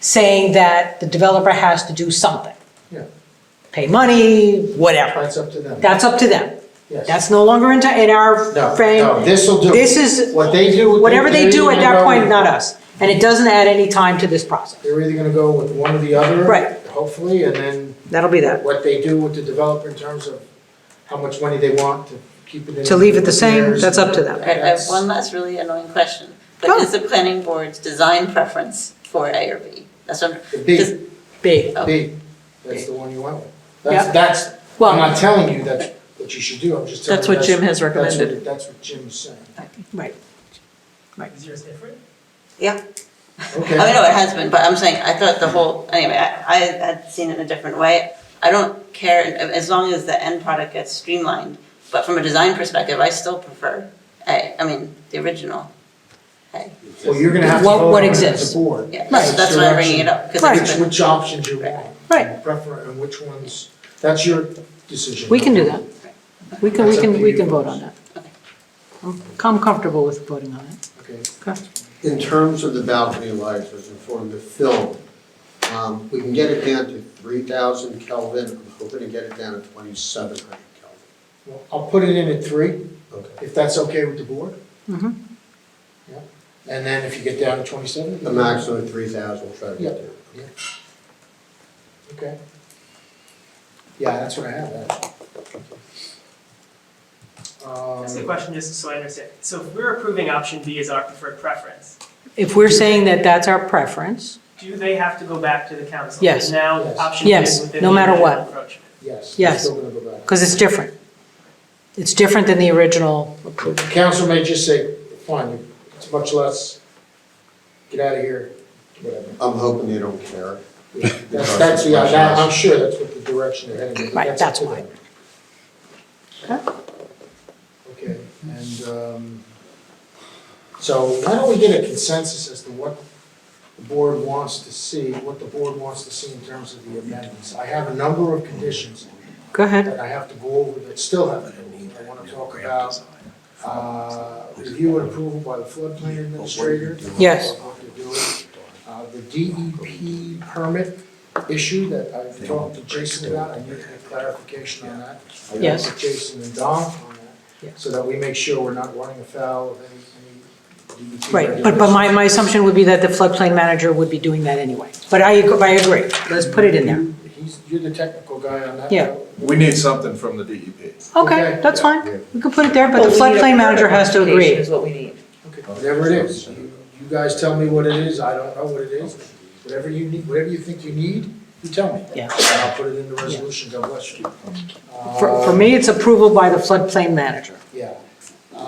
saying that the developer has to do something. Yeah. Pay money, whatever. That's up to them, That's up to them. yes. That's no longer in, in No, our no, frame. this'll do. This is, What they do. whatever they do at they're that either point, gonna not us. And it doesn't add any time to this go- process. They're either gonna go with one or the other. Right. Hopefully, and then That'll be that. what they do with the developer in terms of how much money they want to keep it in. To leave it the same, repairs, that's up to them. I I have that's- one last really annoying question, Go. but is the planning board's design preference for A or B? That's what I'm, The B, Does- B. oh. B, that's the one you went with. That's, that's, I'm Well, not telling you that's what you should do, I'm just telling you. That's what Jim has that's what- recommended. That's what Jim's saying. right. Is yours different? Okay. I know it has been, but I'm saying, I thought the whole, anyway, I, I had seen it in a different way. I don't care, as long as the end product gets streamlined, but from a design perspective, I still prefer A, I mean, the original. Well, you're gonna have to What- vote what on it as exists. a board. Yeah, that's that's why I'm bringing it up, because Right. Which, it's been, which options you want. Right. and Prefer, and which ones, that's your decision. We can do that. We can, we can, we can vote on that. Okay. I'm I'm comfortable with voting on it. Okay. In terms of the balcony lights, as informed of Phil, um, we can get it down to three thousand Kelvin, I'm hoping to get it down to twenty-seven hundred Kelvin. Well, I'll put it in at three, Okay. if that's okay with the board, Mhm. and then if you get down to twenty-seven. The maximum three thousand, we'll try to get there. Okay. Yeah, that's what I have, that. That's the Um, question, just so I understand. So if we're approving option B as our preferred preference, If we're saying that that's our preference, do they have to go back to the council? Yes. Because now Yes. option B Yes, is within no the matter original what. approach. yes. we're Yes. Still gonna go back. because it's different. It's different than the original The approval. council may just say, fine, it's much less, get out of here, whatever. I'm hoping they don't care. That's, that's, yeah, that, I'm sure that's what the direction they're heading. in, but Right, up that's to why. them. Okay, and, um, so why don't we get a consensus as to what the board wants to see, what the board wants to see in terms of the amendments? I have a number of conditions Go ahead. that I have to go over that still haven't been moved. I wanna talk about, uh, review and approval by the floodplain administrator. Yes. of what they're doing. Uh, the DEP permit issue that I've talked to Jason about, I need to get clarification on that. I got Yes. with Jason and Don on Yeah. that, so that we make sure we're not running afoul of any, E any DEP Right, but, but my, my assumption would be that the floodplain manager would be doing that anyway. But I, ag- I agree, let's put it in there. regulations. He's, you're the technical guy on that. Yeah. though. We need something from the E DEP. Okay, that's fine, we can put it there, but the floodplain manager has to agree. Is what we need. Okay, whatever it is, you, you guys tell me what it is, I don't know what it is, whatever you need, whatever you think you need, you tell me. Yeah. And I'll put it in the resolution, God bless you. Uh, For, for me, it's approval by the floodplain manager. Yeah.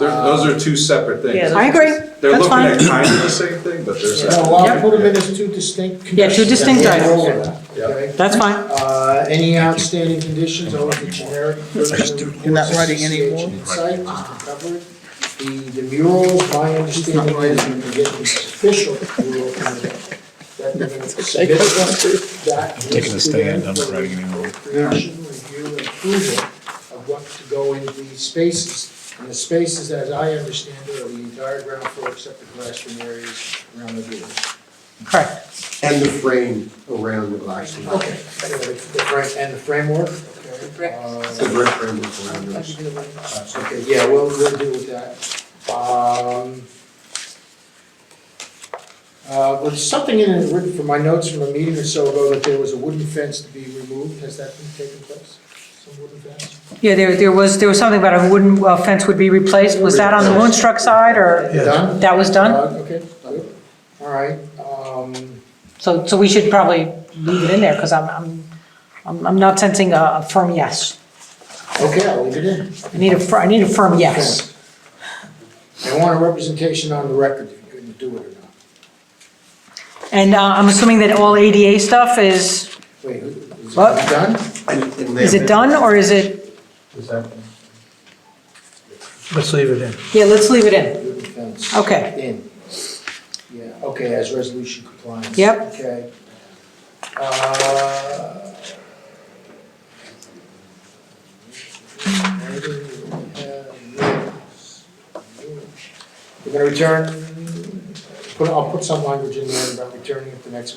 They're- Those are two separate Yeah, things. I agree, They're that's looking fine. at kind of the same thing, but they're separate. No, well, I'll put them in as two distinct conditions. Yeah, two distinct Yeah, items. roll with that, Yeah. okay? That's fine, Uh, any outstanding conditions, all of the generic. You're not writing anymore? Site, just to cover it. The, the murals, my understanding is when you get this official mural permit, that they're gonna submit that. Taking a to stand, them I'm not for writing anymore. Creation, review, and approval of what to go in these spaces. And the spaces, as I understand it, are the entire ground floor except the classroom areas around the building. correct. And the frame around the balcony. Okay, anyway, the frame, and the framework, okay. The uh, brick frame is around us. Okay, yeah, we'll, we'll deal with that. Um, uh, was something in it written from my notes from a meeting or so ago that there was a wooden fence to be removed, has that been taken place? Some wooden fence? Yeah, there, there was, there was something about a wooden uh, fence would be replaced, was that on the Moonstruck side, or Done? that was done? Uh, Okay, good, all right, um, So, so we should probably leave it in there, because I'm, I'm, I'm I'm not sensing a a firm yes. okay, I'll leave it in. I need a, fir- I need a firm yes. I want a representation on the record if you're gonna do it or not. And uh, I'm assuming that all ADA stuff is, Wait, is it What? done? is it done, or is it, Let's leave it in. yeah, let's leave it in. Wooden fence. Okay, In. Yeah, okay, as resolution compliance. Yep. Okay. Uh, We're gonna return, put, I'll put some language in there about returning at the next